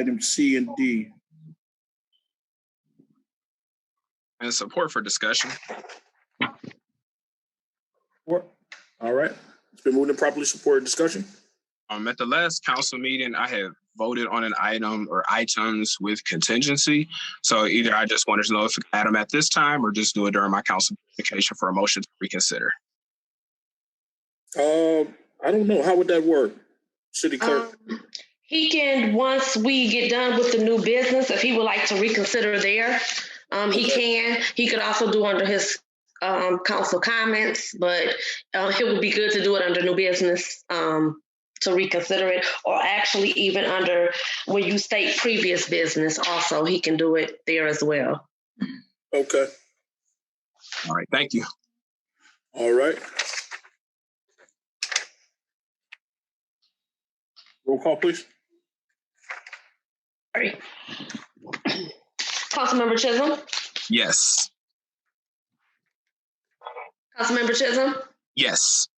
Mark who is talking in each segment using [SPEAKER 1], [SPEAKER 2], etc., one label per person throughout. [SPEAKER 1] item C and D.
[SPEAKER 2] and support for discussion.
[SPEAKER 3] Support. All right. It's been moved and properly supported. Discussion?
[SPEAKER 2] Um, at the last council meeting, I had voted on an item or items with contingency. So either I just wanted to know if we could add them at this time or just do it during my council communication for a motion to reconsider.
[SPEAKER 3] Um, I don't know. How would that work? City clerk?
[SPEAKER 4] Um, He can, once we get done with the new business, if he would like to reconsider there, um, he can. He could also do under his, um, council comments, but, um, it would be good to do it under new business, um, to reconsider it, or actually even under, when you state previous business also, he can do it there as well.
[SPEAKER 3] Okay.
[SPEAKER 2] All right, thank you.
[SPEAKER 3] All right. Roll call, please.
[SPEAKER 4] Sorry. Councilmember Chisholm,
[SPEAKER 2] Yes,
[SPEAKER 4] Councilmember Chisholm,
[SPEAKER 2] yes,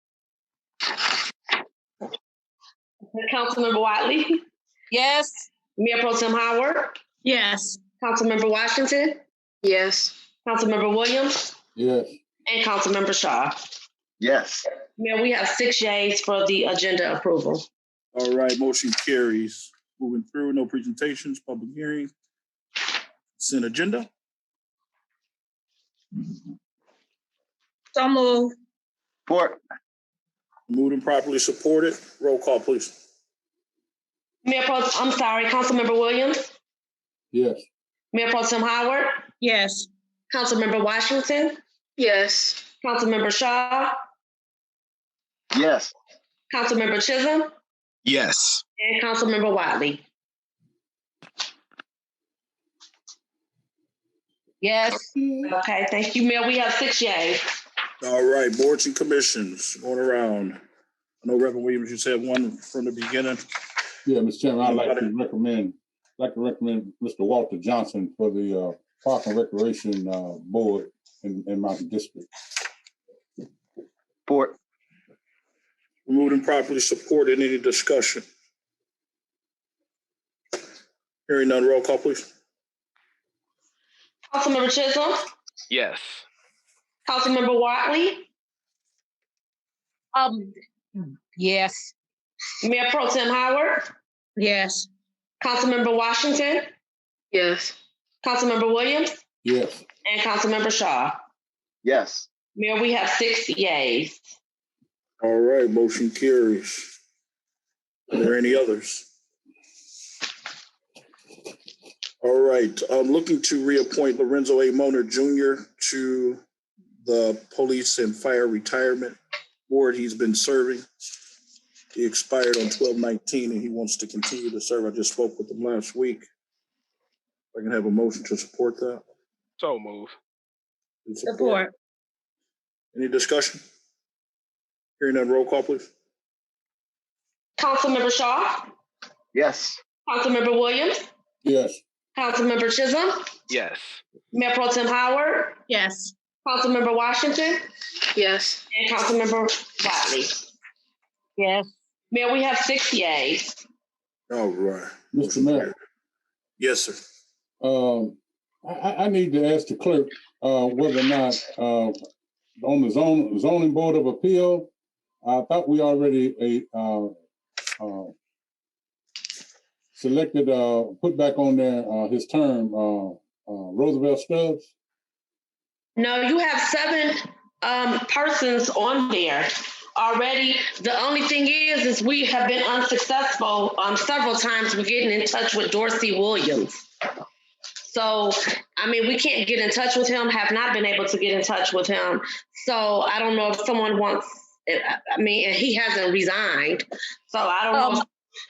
[SPEAKER 4] Councilmember Wiley,
[SPEAKER 5] Yes.
[SPEAKER 4] Mayor Pro Tem Howard.
[SPEAKER 5] Yes.
[SPEAKER 4] Councilmember Washington,
[SPEAKER 5] Yes.
[SPEAKER 4] Councilmember Williams,
[SPEAKER 6] Yes.
[SPEAKER 4] and Councilmember Shaw.
[SPEAKER 6] Yes.
[SPEAKER 4] Mayor, we have six yays for the agenda approval.
[SPEAKER 1] All right, motion carries. Moving through, no presentations, public hearing. Consent agenda.
[SPEAKER 5] So move.
[SPEAKER 6] Support.
[SPEAKER 3] Moved and properly supported. Roll call, please.
[SPEAKER 4] Mayor Pro, I'm sorry, Councilmember Williams,
[SPEAKER 6] Yes.
[SPEAKER 4] Mayor Pro Tem Howard,
[SPEAKER 5] Yes.
[SPEAKER 4] Councilmember Washington,
[SPEAKER 5] Yes.
[SPEAKER 4] Councilmember Shaw,
[SPEAKER 6] Yes.
[SPEAKER 4] Councilmember Chisholm,
[SPEAKER 2] yes,
[SPEAKER 4] and Councilmember Wiley.
[SPEAKER 5] Yes.
[SPEAKER 4] Okay, thank you, Mayor. We have six yays.
[SPEAKER 3] All right, boards and commissions going around. I know Reverend Williams, you said one from the beginning.
[SPEAKER 7] Yeah, Mr. Chairman, I'd like to recommend, like to recommend Mr. Walter Johnson for the uh, Park and Recreation uh, Board in in Mountain District.
[SPEAKER 6] Support.
[SPEAKER 3] Moved and properly supported. Any discussion? Hearing none. Roll call, please.
[SPEAKER 4] Councilmember Chisholm,
[SPEAKER 8] Yes.
[SPEAKER 4] Councilmember Wiley,
[SPEAKER 5] Um, yes.
[SPEAKER 4] Mayor Pro Tem Howard,
[SPEAKER 5] Yes.
[SPEAKER 4] Councilmember Washington,
[SPEAKER 5] Yes.
[SPEAKER 4] Councilmember Williams,
[SPEAKER 7] Yes,
[SPEAKER 4] and Councilmember Shaw.
[SPEAKER 6] Yes.
[SPEAKER 4] Mayor, we have six yays.
[SPEAKER 3] All right, motion carries. Are there any others? All right, I'm looking to reappoint Lorenzo A. Moner Jr. to the Police and Fire Retirement Board. He's been serving. He expired on twelve nineteen and he wants to continue to serve. I just spoke with him last week. If I can have a motion to support that.
[SPEAKER 8] So move.
[SPEAKER 5] Support.
[SPEAKER 3] Any discussion? Hearing none, roll call, please.
[SPEAKER 4] Councilmember Shaw,
[SPEAKER 6] Yes.
[SPEAKER 4] Councilmember Williams,
[SPEAKER 7] yes,
[SPEAKER 4] Councilmember Chisholm,
[SPEAKER 8] Yes.
[SPEAKER 4] Mayor Pro Tem Howard,
[SPEAKER 5] Yes.
[SPEAKER 4] Councilmember Washington,
[SPEAKER 5] Yes.
[SPEAKER 4] and Councilmember Wiley.
[SPEAKER 5] Yes.
[SPEAKER 4] Mayor, we have six yays.
[SPEAKER 3] All right.
[SPEAKER 7] Mr. Mayor.
[SPEAKER 3] Yes, sir.
[SPEAKER 7] Um, I, I, I need to ask the clerk uh, whether or not uh, on the zone zoning board of appeal, I thought we already a uh, uh, selected, uh, put back on there uh, his term, uh, uh, Roosevelt Stubbs.
[SPEAKER 4] No, you have seven um, persons on there already. The only thing is, is we have been unsuccessful um, several times with getting in touch with Dorsey Williams. So, I mean, we can't get in touch with him, have not been able to get in touch with him. So I don't know if someone wants, I I mean, and he hasn't resigned. So I don't know.
[SPEAKER 9] Um,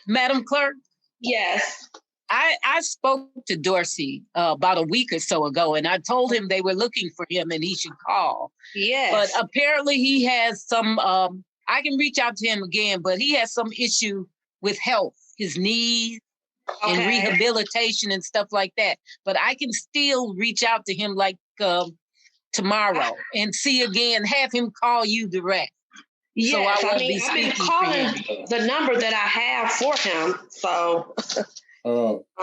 [SPEAKER 9] Madam Clerk,
[SPEAKER 4] Yes.
[SPEAKER 9] I, I spoke to Dorsey uh, about a week or so ago, and I told him they were looking for him and he should call. But um,
[SPEAKER 4] Yes.
[SPEAKER 9] apparently he has some, um, I can reach out to him again, but he has some issue with health, his knees and
[SPEAKER 4] Okay.
[SPEAKER 9] rehabilitation and stuff like that. But I can still reach out to him like um, tomorrow and see again, have him call you direct. So I
[SPEAKER 4] Yes, I
[SPEAKER 9] won't
[SPEAKER 4] mean,
[SPEAKER 9] be
[SPEAKER 4] I've been
[SPEAKER 9] speaking for
[SPEAKER 4] calling
[SPEAKER 9] him.
[SPEAKER 4] the number that I have for him, so.
[SPEAKER 7] Uh,